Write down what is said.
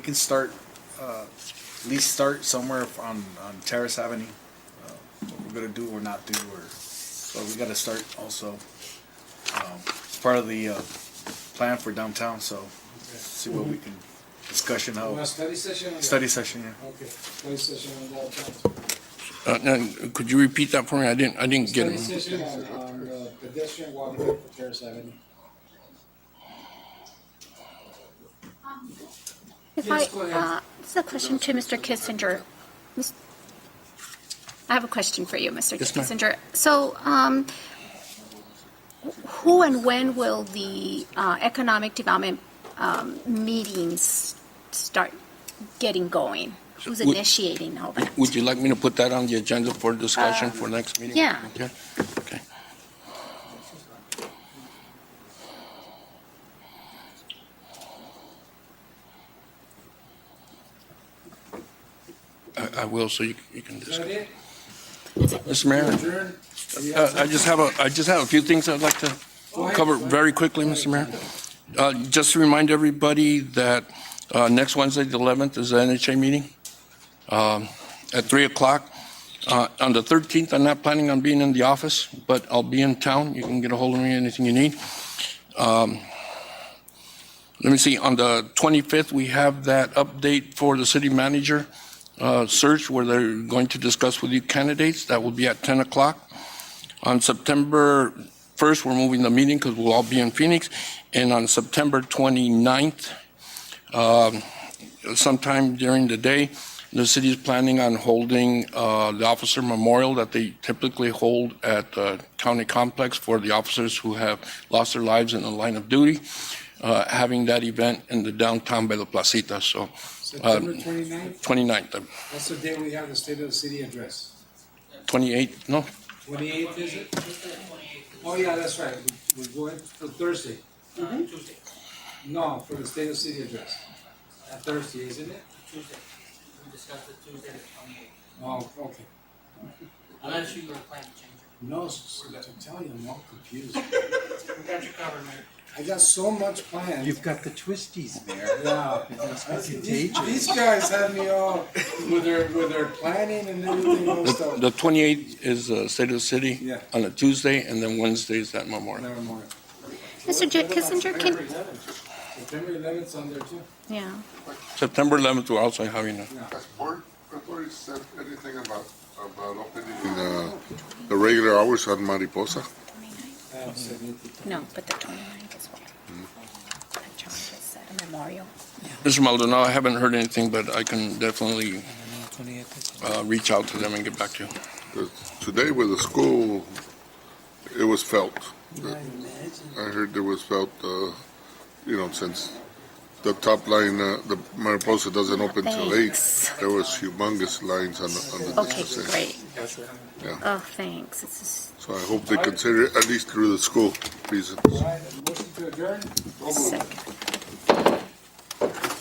You can start, uh, at least start somewhere on, on Terrace Avenue. uh, What we're gonna do or not do, or, but we gotta start also. Um, It's part of the, uh, plan for downtown, so see what we can, discussion Well, how, study session? on Oh. study session, yeah. that. Okay, study session on that, count. Uh, now, could you repeat that for me? I didn't, I didn't get Study it. session on, on the pedestrian walkway for Terrace Avenue. If I, Yes, go ahead. uh, this is a question to Mr. Kissinger. Mis- I have a question for you, Mr. Yes, ma'am. Kissinger. So, um, wh- who and when will the, uh, economic development, um, meetings start getting going? Who's would- initiating all that? Would you like me to put that on the agenda for discussion for next meeting? yeah. Okay. Okay. I, I will, so you, you can Is that discuss. it? Mr. Mayor, Adjourn? uh, I just have a, I just have a few things I'd like to Go ahead. cover very quickly, Mr. Mayor. Uh, Just to remind everybody that uh, next Wednesday, the 11th, is the NHA meeting um, at 3 o'clock. Uh, On the 13th, I'm not planning on being in the office, but I'll be in town. You can get a hold of me, anything you need. Um, Let me see, on the 25th, we have that update for the city manager uh, search where they're going to discuss with you candidates. That will be at 10 o'clock. On September 1st, we're moving the meeting because we'll all be in Phoenix. And on September 29th, um, sometime during the day, the city is planning on holding uh, the officer memorial that they typically hold at the county complex for the officers who have lost their lives in the line of duty, uh, having that event in the downtown by the Placita. So September twenty-ninth, 29th, uh, that's the day we have the state of the city address. 28th, no, Twenty-eighth, is it? Oh, yeah, that's right, we, we're going for Thursday. Tuesday. No, for the state of the city address. Uh, Thursday, isn't it? Tuesday. We discussed it Tuesday the twenty-eighth. Oh, okay. Unless you were planning to change it. No, s- s- I'm telling you, I'm all confused. We got you covered, man. I got so much planned. You've got the twisties there. Yeah. It's These contagious. these guys had me all with their with their planning and everything else The stuff. the 28th is the State of the City. Yeah. On a Tuesday, and then Wednesday is that memorial. Never mind. Mr. J- Kissinger, can, September eleventh on there too. yeah. September 11th, we're also having a, Has Port Authority said anything about, about opening the, the regular hours at Mariposa? No, but the 29th is what. That John just said, a memorial. Mr. Maldonado, I haven't heard anything, but I can definitely uh, reach out to them and get back to you. 'Cause Today with the school, it was felt. I heard there was felt, uh, you know, since the top line, uh, the Mariposa doesn't open till eight, Thanks. there was humongous lines on the, on the Okay, distance. great. Yeah. Oh, thanks. This is So I hope they consider it at least through the school reasons. All right, motion to adjourn. second.